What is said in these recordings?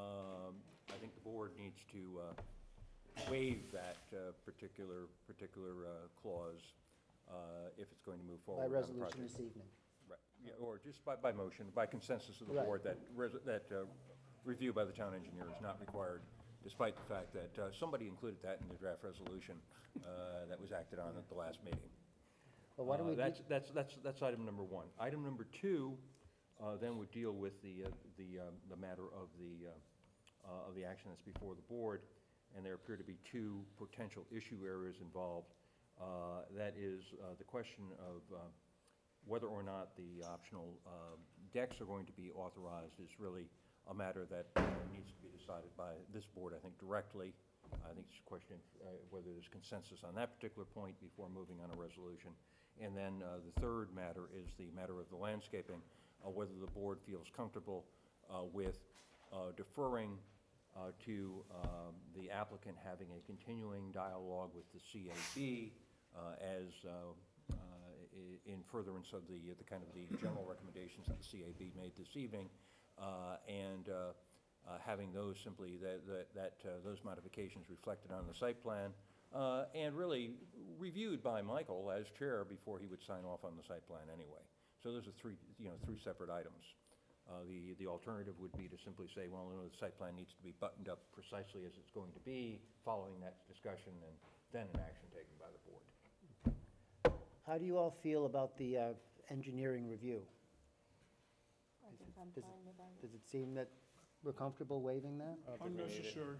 Um, board needs to uh, waive that uh, particular, particular uh, clause uh, if it's going to move forward by on the resolution project. this evening. Right, yeah, or just by, by motion, by consensus of the Right. board, that, res- that uh, review by the town engineer is not required, despite the fact that uh, somebody included that in the draft resolution uh, that was acted on at the last meeting. But why don't Uh, we, That's, do- that's, that's, that's item number one. Item number two, uh, then would deal with the, uh, the, um, the matter of the, uh, uh, of the action that's before the board, and there appear to be two potential issue areas involved. Uh, That is uh, the question of uh, whether or not the optional uh, decks are going to be authorized is really a matter that uh, needs to be decided by this board, I think, directly. I think it's a question of uh, whether there's consensus on that particular point before moving on a resolution. And then uh, the third matter is the matter of the landscaping, uh, whether the board feels comfortable uh, with uh, deferring uh, to um, the applicant having a continuing dialogue with the CAB uh, as uh, uh, i- in furtherance of the, the kind of the general recommendations that the CAB made this evening, uh, and uh, uh, having those simply, that, that- that, uh, those modifications reflected on the site plan, uh, and really reviewed by Michael as chair before he would sign off on the site plan anyway. So those are three, you know, three separate items. Uh, The, the alternative would be to simply say, well, no, the site plan needs to be buttoned up precisely as it's going to be, following that discussion, and then an action taken by the board. how do you all feel about the uh, engineering review? I think I'm Does it- fine with that. Does it seem that we're comfortable waiving that? Unnecessary.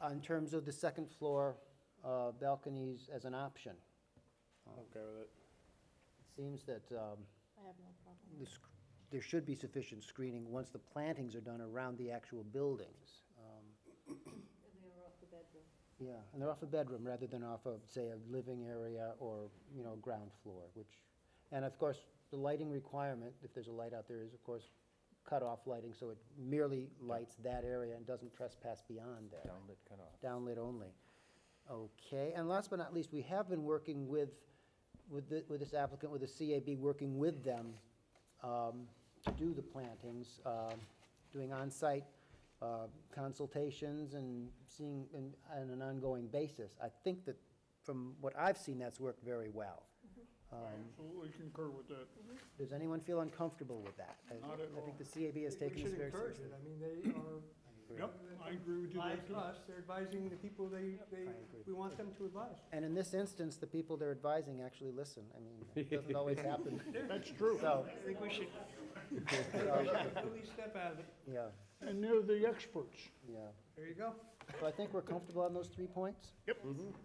Uh, In terms of the second floor uh, balconies as an option, Okay with it. it seems that um, I have no problem. the sc- there should be sufficient screening once the plantings are done around the actual buildings. Um, And they are off the bedroom. Yeah, and they're off a bedroom rather than off of, say, a living area or, you know, ground floor, which, and of course, the lighting requirement, if there's a light out there, is of course cut-off lighting, so it merely lights that area and doesn't trespass beyond there. Downlit cutoff. Downlit only. Okay, and last but not least, we have been working with, with the- with this applicant, with the CAB, working with them um, to do the plantings, um, doing on-site uh, consultations and seeing, and- on an ongoing basis. I think that, from what I've seen, that's worked very well. Um, I absolutely concur with that. Does anyone feel uncomfortable with that? I- Not at I think all. the CAB has taken this very We should seriously. encourage it. I mean, they are. Yep, I agree with you there, Advise too. us, they're advising the people they, they, agree. we want them to advise. And in this instance, the people they're advising actually listen. I mean, it doesn't always happen. That's true. I So, think we should. Really step out of it. yeah, And they're the experts. yeah. There you go. So I think we're comfortable on those three points.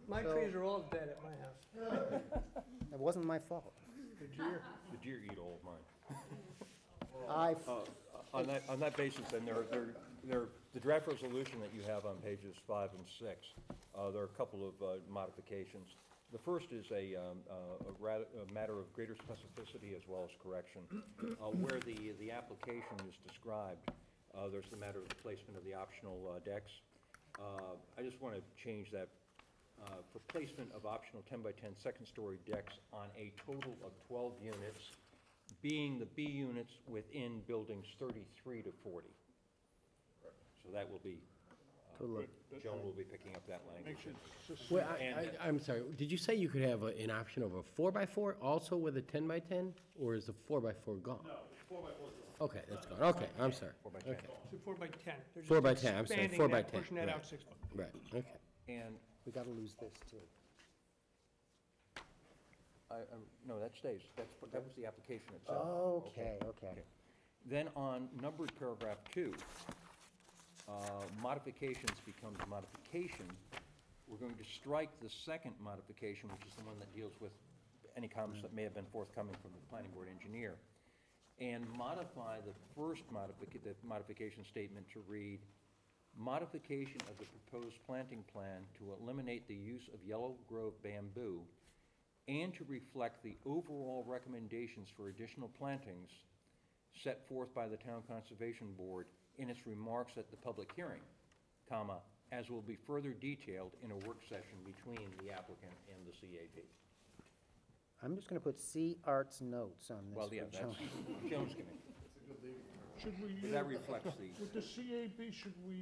My So- trees are all dead at my house. It wasn't my fault. The deer eat all of mine. Uh, I, On that, on that basis, then, there, there, there, the draft resolution that you have on pages five and six, uh, there are a couple of uh, modifications. The first is a, um, uh, a ra- a matter of greater specificity as well as correction. Uh, where the, the application is described, uh, there's the matter of the placement of the optional uh, decks. Uh, I just want to change that, uh, for placement of optional ten by 10 second story decks on a total of twelve units being the B units within buildings 33 to 40. So that will be, uh, Joan will be picking up that language. Makes it sus- Well, I, And- I, I'm sorry, did you say you could have a- an option of a four by four also with a ten by ten? Or is the four by four gone? No, four by four is gone. Okay, that's gone, okay, I'm sorry. Four by 10. It's a four by 10. They're just Four by 10, I'm sorry, expanding four by that, 10, Pushing that right. out six foot. Right, okay. And, we gotta lose this too. I, I- no, that stays, that's, that was the application itself. Okay, okay. Then on numbered paragraph two, uh, modifications becomes modification. We're going to strike the second modification, which is the one that deals with any comments that may have been forthcoming from the planning board engineer, and modify the first modific, the modification statement to read, modification of the proposed planting plan to eliminate the use of yellow grove bamboo and to reflect the overall recommendations for additional plantings set forth by the Town Conservation Board in its remarks at the public hearing, comma, as will be further detailed in a work session between the applicant and the CAB. I'm just gonna put C Arts notes on this. Well, yeah, for Joan. that's Jones' giving. Should we, That uh, reflects the. with the CAB, should we